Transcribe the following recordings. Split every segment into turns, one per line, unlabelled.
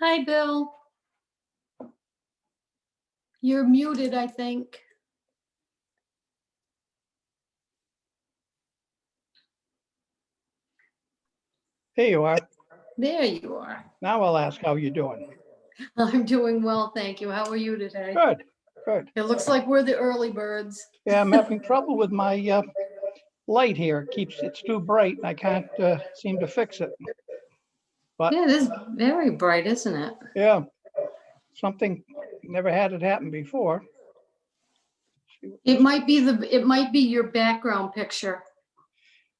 Hi, Bill. You're muted, I think.
There you are.
There you are.
Now I'll ask how you're doing.
I'm doing well, thank you. How are you today?
Good, good.
It looks like we're the early birds.
Yeah, I'm having trouble with my uh, light here. It Keeps, it's too bright and I can't uh, seem to fix it. But-
Yeah, it is very bright, isn't it?
Yeah. Something, never had it happen before.
It might be the, it might be your background picture.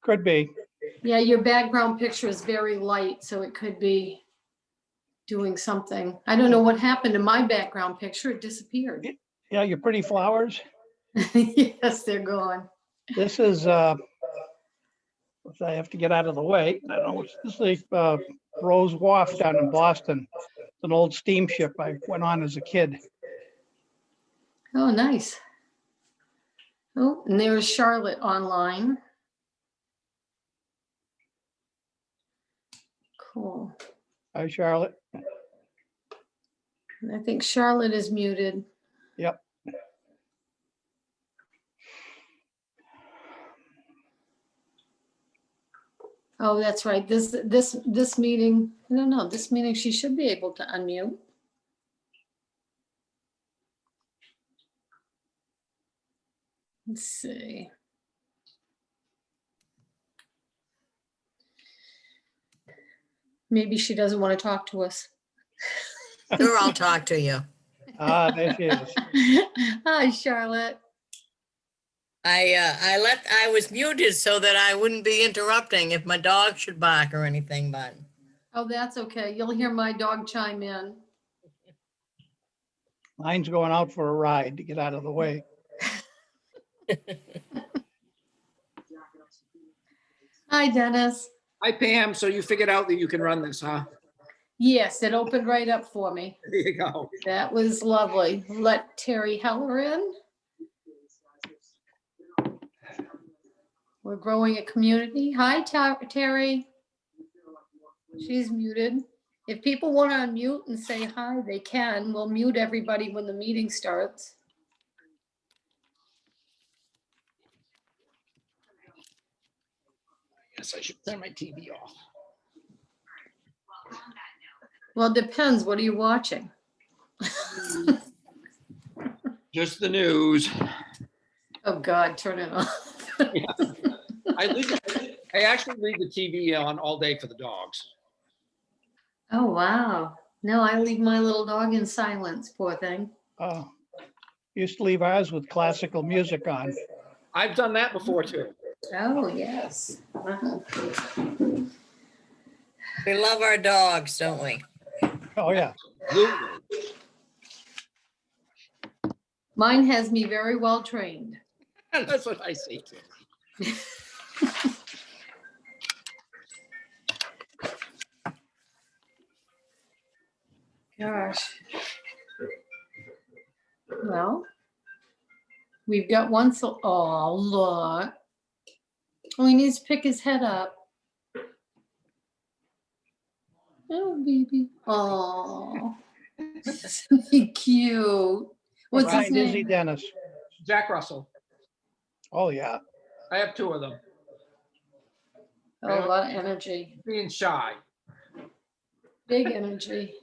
Could be.
Yeah, your background picture is very light, so it could be doing something. I don't know what happened to my background picture. It disappeared.
Yeah, your pretty flowers.
Yes, they're gone.
This is, uh, which I have to get out of the way. I don't know, it's- this is uh, Rose Wharf down in Boston. It's An old steamship I went on as a kid.
Oh, nice. Oh, and there's Charlotte online. Cool.
Hi, Charlotte.
And I think Charlotte is muted.
Yep.
Oh, that's right. This, this, this meeting, I don't know, this meeting, she should be able to unmute. Let's see. Maybe she doesn't want to talk to us.
Sure, I'll talk to you.
Ah, there she is.
Hi, Charlotte.
I, uh, I left, I was muted so that I wouldn't be interrupting if my dog should bark or anything, but
Oh, that's okay. You'll hear my dog chime in.
Mine's going out for a ride to get out of the way.
Hi, Dennis.
Hi Pam, so you figured out that you can run this, huh?
Yes, it opened right up for me.
There you go.
That was lovely. Let Terry Heller in. We're growing a community. Hi, Ta- Terry. She's muted. If people want to unmute and say hi, they can. We'll mute everybody when the meeting starts.
Yes, I should turn my TV off.
Well, it depends. What are you watching?
Just the news.
Oh, God, turn it off.
I leave, I actually leave the TV on all day for the dogs.
Oh, wow. No, I leave my little dog in silence, poor thing.
Uh, Used to leave ours with classical music on.
I've done that before too.
Oh, yes. Uh-huh.
we love our dogs, don't we?
Oh, yeah.
Absolutely.
Mine has me very well trained.
That's what I say too.
Gosh. Well, we've got one, so, oh, look. Oh, he needs to pick his head up. Oh, baby. Oh. Cute. What's his
Brian Izzy
name?
Dennis.
Jack Russell,
Oh, yeah.
I have two of them,
Oh, A lot of energy,
being shy.
big energy.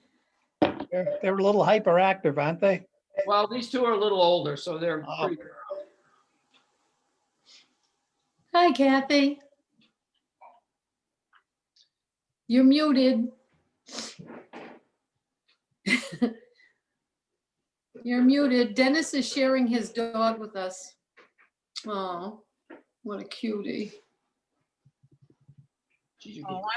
They're, they're a little hyperactive, aren't they?
Well, these two are a little older, so they're,
Oh.
pretty-
Hi Kathy. You're muted. You're muted. Dennis is sharing his dog with us. Oh, what a cutie.
Geez, you could-
Oh,